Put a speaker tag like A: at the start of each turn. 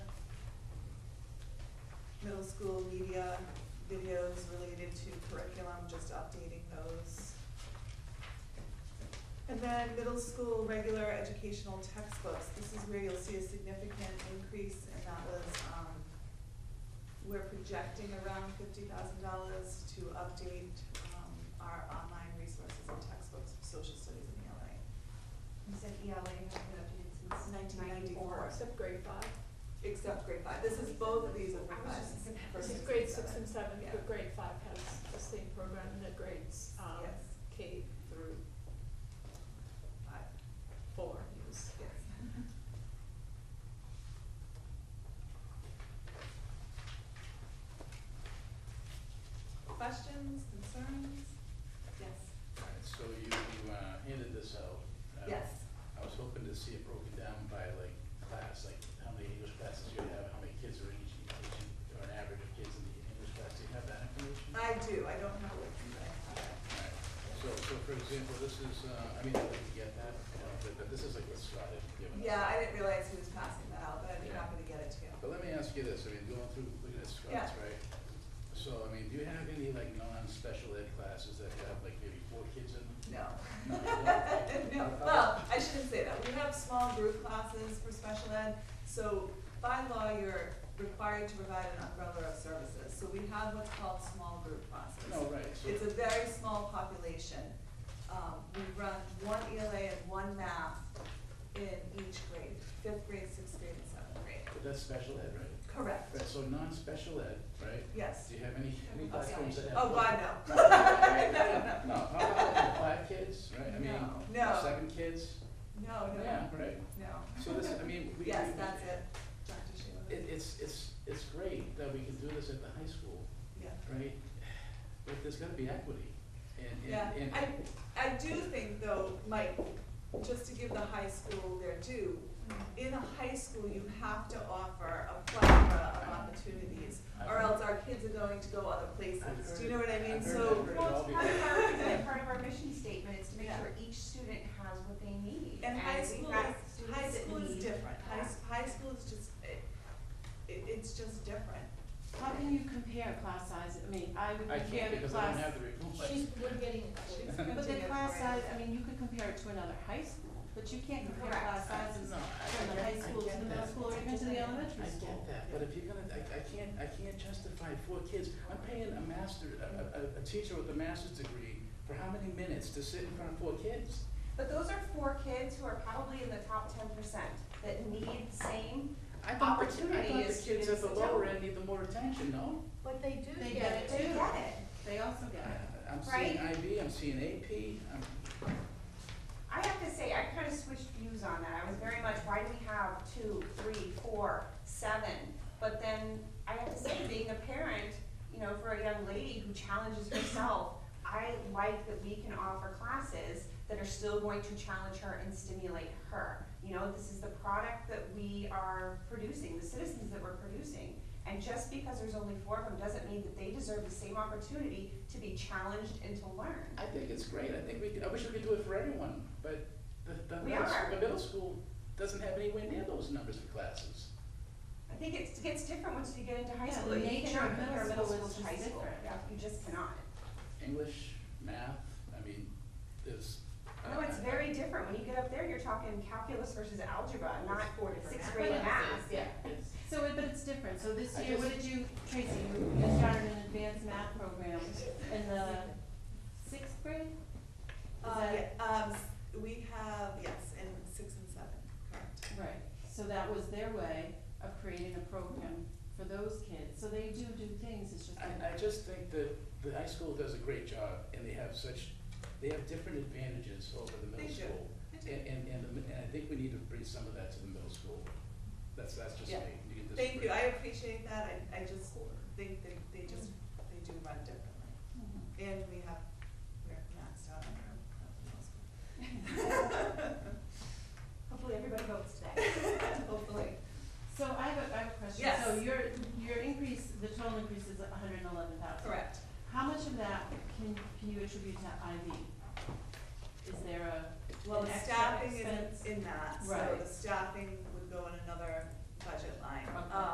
A: school media videos related to curriculum, just updating those. And then middle school regular educational textbooks, this is where you'll see a significant increase, and that was, um, we're projecting around fifty thousand dollars to update, um, our online resources and textbooks for social studies in E ELA.
B: You said E ELA has been updated since
A: Nineteen
B: ninety-four.
A: ninety-four.
C: Except grade five.
A: Except grade five, this is both of these are for
B: I was
A: five.
B: just gonna
A: for
B: ask.
A: six
C: Grade six
A: seven.
C: and seven,
A: Yeah.
C: but grade five has the same program that grades, um,
A: Yes.
C: K through
A: Five,
C: four use.
A: yes. Questions, concerns? Yes.
D: Alright, So you uh, handed this out. Uh,
A: Yes.
D: I was hoping to see it broken down by like class, like how many English classes you have, how many kids are in each, each- or an average of kids in the English class. Do you have that information?
A: I do, I don't know what you guys
D: Alright, So, so for example, this is, uh, I mean, I'd like to get that, uh, but- but this is like what Scott had
A: have.
D: given us.
A: Yeah, I didn't realize he was passing that out, but I'd be
D: Yeah.
A: happy to get it to you.
D: But let me ask you this, I mean, going through, looking at Scott's,
A: Yeah.
D: right? So, I mean, do you have any like non-special ed classes that have like maybe four kids in them?
A: No.
D: No.
A: No, well, I shouldn't say that. We have small group classes for special ed, so by law, you're required to provide an umbrella of services. So we have what's called small group classes.
D: No, right, so.
A: It's a very small population. Um, we run one ELA and one math in each grade, fifth grade, sixth grade, and seventh grade.
D: But that's special ed, right?
A: Correct,
D: Right, so non-special ed, right?
A: yes.
D: Do you have any, any
B: Oh, yeah.
D: platforms that have?
A: Oh, God, no.
D: No, how about like five kids, right? I mean,
A: No. No.
D: Seven kids?
A: No,
D: Yeah,
A: no,
D: right.
A: no.
D: So this, I mean, we.
A: Yes,
D: we-
A: that's it, Dr. Sheila.
D: It, it's, it's, it's great that we can do this at the high school,
A: Yeah.
D: right? But there's gotta be equity and,
A: Yeah,
D: and, and.
A: I, I do think though, Mike, just to give the high school their due, in a high school, you have to offer a plethora of opportunities, or else our kids are going to go other places,
D: I've
A: do you know what I
D: heard-
A: mean?
D: I've heard-
A: So,
D: I've heard it
B: Well,
D: all
B: it's part of
D: before.
B: our, it's like part of our mission statement, is to make
A: Yeah.
B: sure each student has what they need.
A: and high
B: we've
A: school
B: got
A: is,
B: students
A: high
B: that
A: school is
B: need
A: different, high,
B: that.
A: s- high school is just, it, it, it's just different.
E: How can you compare class size, I mean, I would
D: I can't
E: compare the
D: because I don't
E: class.
D: have the report.
E: She's,
C: we're getting.
A: She's
E: but the
A: continuing
E: class
A: for it.
E: size, I mean, you could compare it to another high school, but you can't compare
B: Correct.
E: class
D: I-
E: sizes
D: no, I-
E: from the
D: I-
E: high
D: I
E: school
D: get
E: to the middle
D: that.
E: school or even to the elementary
D: I
E: school.
D: get that, but if you're gonna, I, I can't, I can't justify four kids, I'm paying a master, a, a, a teacher with a master's degree for how many minutes to sit in front of four kids?
B: But those are four kids who are probably in the top ten percent that need same,
D: I thought the-
B: Opportunity
D: I
B: is
D: thought the kids at the
B: students
D: lower
B: to-
D: end need the more attention, no?
C: But they do
E: They get
B: they
E: Two.
B: get it.
E: They also get it.
D: I- Uh, I'm seeing
B: Right.
D: IB, I'm seeing AP, I'm,
B: I have to say, I kind of switched views on that. I was very much, why do we have two, three, four, seven? But then I have to say, being a parent, you know, for a young lady who challenges herself, I like that we can offer classes that are still going to challenge her and stimulate her. You know, this is the product that we are producing, the citizens that we're producing. And just because there's only four of them doesn't mean that they deserve the same opportunity to be challenged and to learn.
D: I think it's great, I think we, could- I wish we could do it for everyone, but the, the
B: We
D: middle, s-
B: are.
D: the middle school doesn't have anywhere near those numbers of classes.
B: I think it's, it gets different once you get into high
E: Yeah,
B: school.
E: the
B: You
E: nature
B: cannot
E: of middle
B: compare
E: school is
B: to
E: just
B: high school.
E: different.
B: Yeah, You just cannot.
D: English, math, I mean, there's.
B: No, Oh, it's very different. When you get up there, you're talking calculus versus algebra, not sixth grade
E: But it's-
B: math.
E: Yeah, so it, but it's different, so this
D: I
E: year, what did you, Tracy, you you started an advanced math program in the sixth grade? Is
A: Uh,
E: that-
A: yeah, um, s- we have, yes, in six and seven, correct.
E: Right, so that was their way of creating a program for those kids, so they do do things, it's just.
D: I, I just think that the high school does a great job, and they have such, they have different advantages over the
A: They
D: middle
A: do.
D: school. And, and, and, the mi- and I think we need to bring some of that to the middle school. That's, that's just me.
A: Yeah.
D: You can
A: Thank
D: disagree.
A: you, I appreciate that, I, I just think that they just, they do run differently.
E: Mhm.
A: And we have, we're maxed out on our, uh, on the middle school.
B: Hopefully, everybody votes today.
A: Hopefully.
E: So I have a, I have a question.
A: Yes.
E: So your, your increase, the total increase is hundred and eleven thousand.
A: Correct.
E: How much of that can, can you attribute to IV? Is there a,
A: Well,
E: an
A: the
E: extra
A: staffing
E: expense?
A: is in that, so
E: Right.
A: the staffing would go in another budget